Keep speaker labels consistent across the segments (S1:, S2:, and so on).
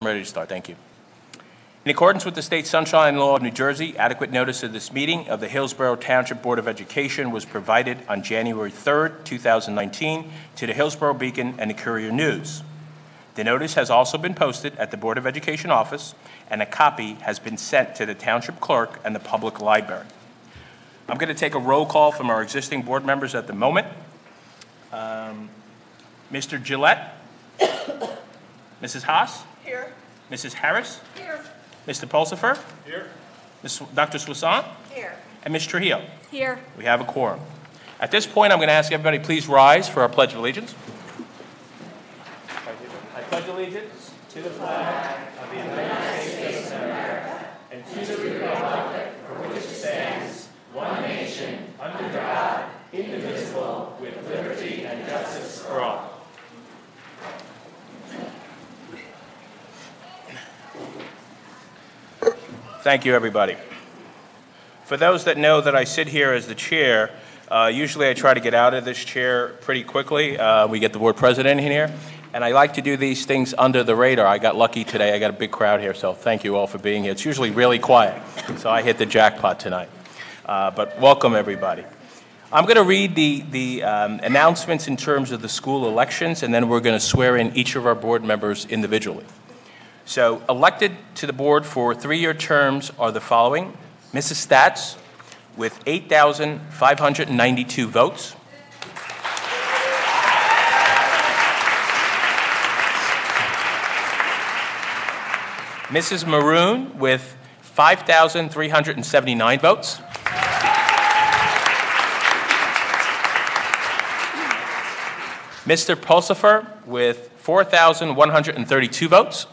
S1: Ready to start, thank you. In accordance with the state sunshine law of New Jersey, adequate notice of this meeting of the Hillsborough Township Board of Education was provided on January 3rd, 2019, to the Hillsborough Beacon and the Courier News. The notice has also been posted at the Board of Education office, and a copy has been sent to the township clerk and the public library. I'm going to take a roll call from our existing board members at the moment. Um, Mr. Gillette? Mrs. Haas?
S2: Here.
S1: Mrs. Harris?
S2: Here.
S1: Mr. Pulsifer? Here. Dr. Swasan?
S2: Here.
S1: And Ms. Trujillo?
S2: Here.
S1: We have a quorum. At this point, I'm going to ask everybody, please rise for our Pledge of Allegiance. I pledge allegiance to the flag of the United States of America and to the republic for which it stands, one nation, under God, indivisible, with liberty and justice for all. Thank you, everybody. For those that know that I sit here as the chair, uh, usually I try to get out of this chair pretty quickly. Uh, We get the board president in here, and I like to do these things under the radar. I got lucky today, I got a big crowd here, so thank you all for being here. It's usually really quiet, so I hit the jackpot tonight. Uh, But welcome, everybody. I'm going to read the the um, announcements in terms of the school elections, and then we're going to swear in each of our board members individually. So elected to the board for three-year terms are the following. Mrs. Stats with 8,592 votes. Mrs. Maroon with 5,379 votes. Mr. Pulsifer with 4,132 votes.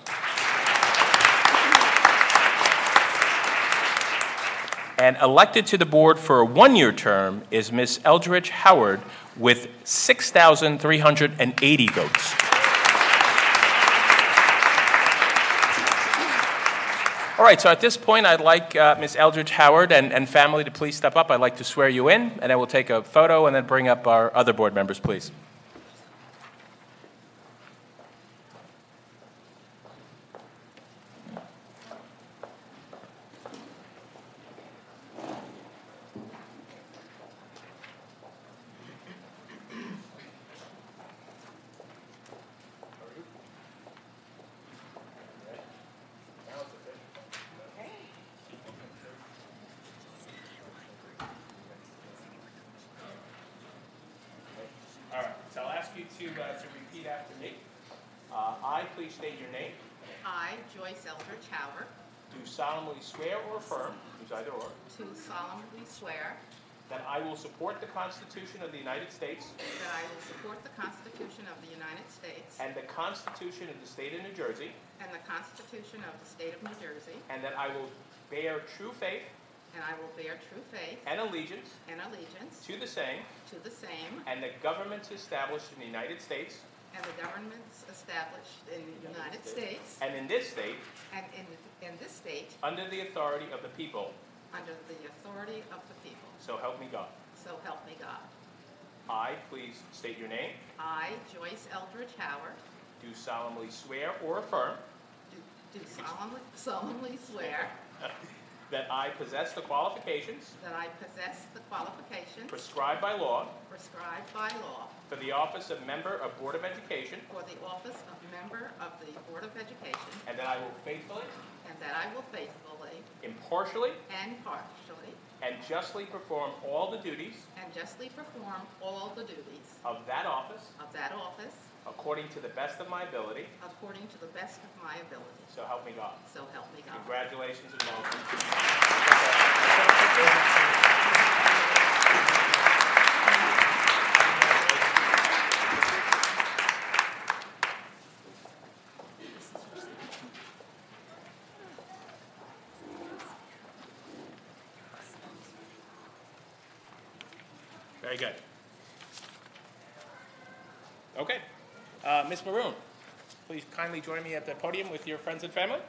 S1: And elected to the board for a one-year term is Ms. Eldridge Howard with 6,380 votes. All right, so at this point, I'd like uh, Ms. Eldridge Howard and and family to please step up. I'd like to swear you in, and I will take a photo and then bring up our other board members, please. All right, so I'll ask you to, uh, to repeat after me. Uh, I, please state your name,
S2: I, Joyce Eldridge Howard,
S1: do solemnly swear or affirm, use either or,
S2: do solemnly swear
S1: that I will support the Constitution of the United States
S2: that I will support the Constitution of the United States
S1: and the Constitution of the State of New Jersey,
S2: and the Constitution of the State of New Jersey,
S1: and that I will bear true faith
S2: and I will bear true faith
S1: and allegiance
S2: and allegiance
S1: to the same
S2: to the same
S1: and the governments established in the United States
S2: and the governments established in the United States
S1: and in this state
S2: and in, in this state
S1: under the authority of the people,
S2: under the authority of the people.
S1: so help me God.
S2: So help me God.
S1: I, please state your name,
S2: I, Joyce Eldridge Howard,
S1: do solemnly swear or affirm
S2: do- do solemnly solemnly swear
S1: That I possess the qualifications
S2: That I possess the qualifications
S1: prescribed by law
S2: prescribed by law
S1: for the office of member of Board of Education,
S2: for the office of member of the Board of Education,
S1: and that I will faithfully,
S2: and that I will faithfully
S1: impartially,
S2: and partially
S1: and justly perform all the duties
S2: and justly perform all the duties
S1: of that office
S2: of that office
S1: according to the best of my ability,
S2: according to the best of my ability.
S1: so help me God.
S2: So help me God.
S1: Congratulations and welcome. Very good. Okay. Uh, Ms. Maroon, please kindly join me at the podium with your friends and family.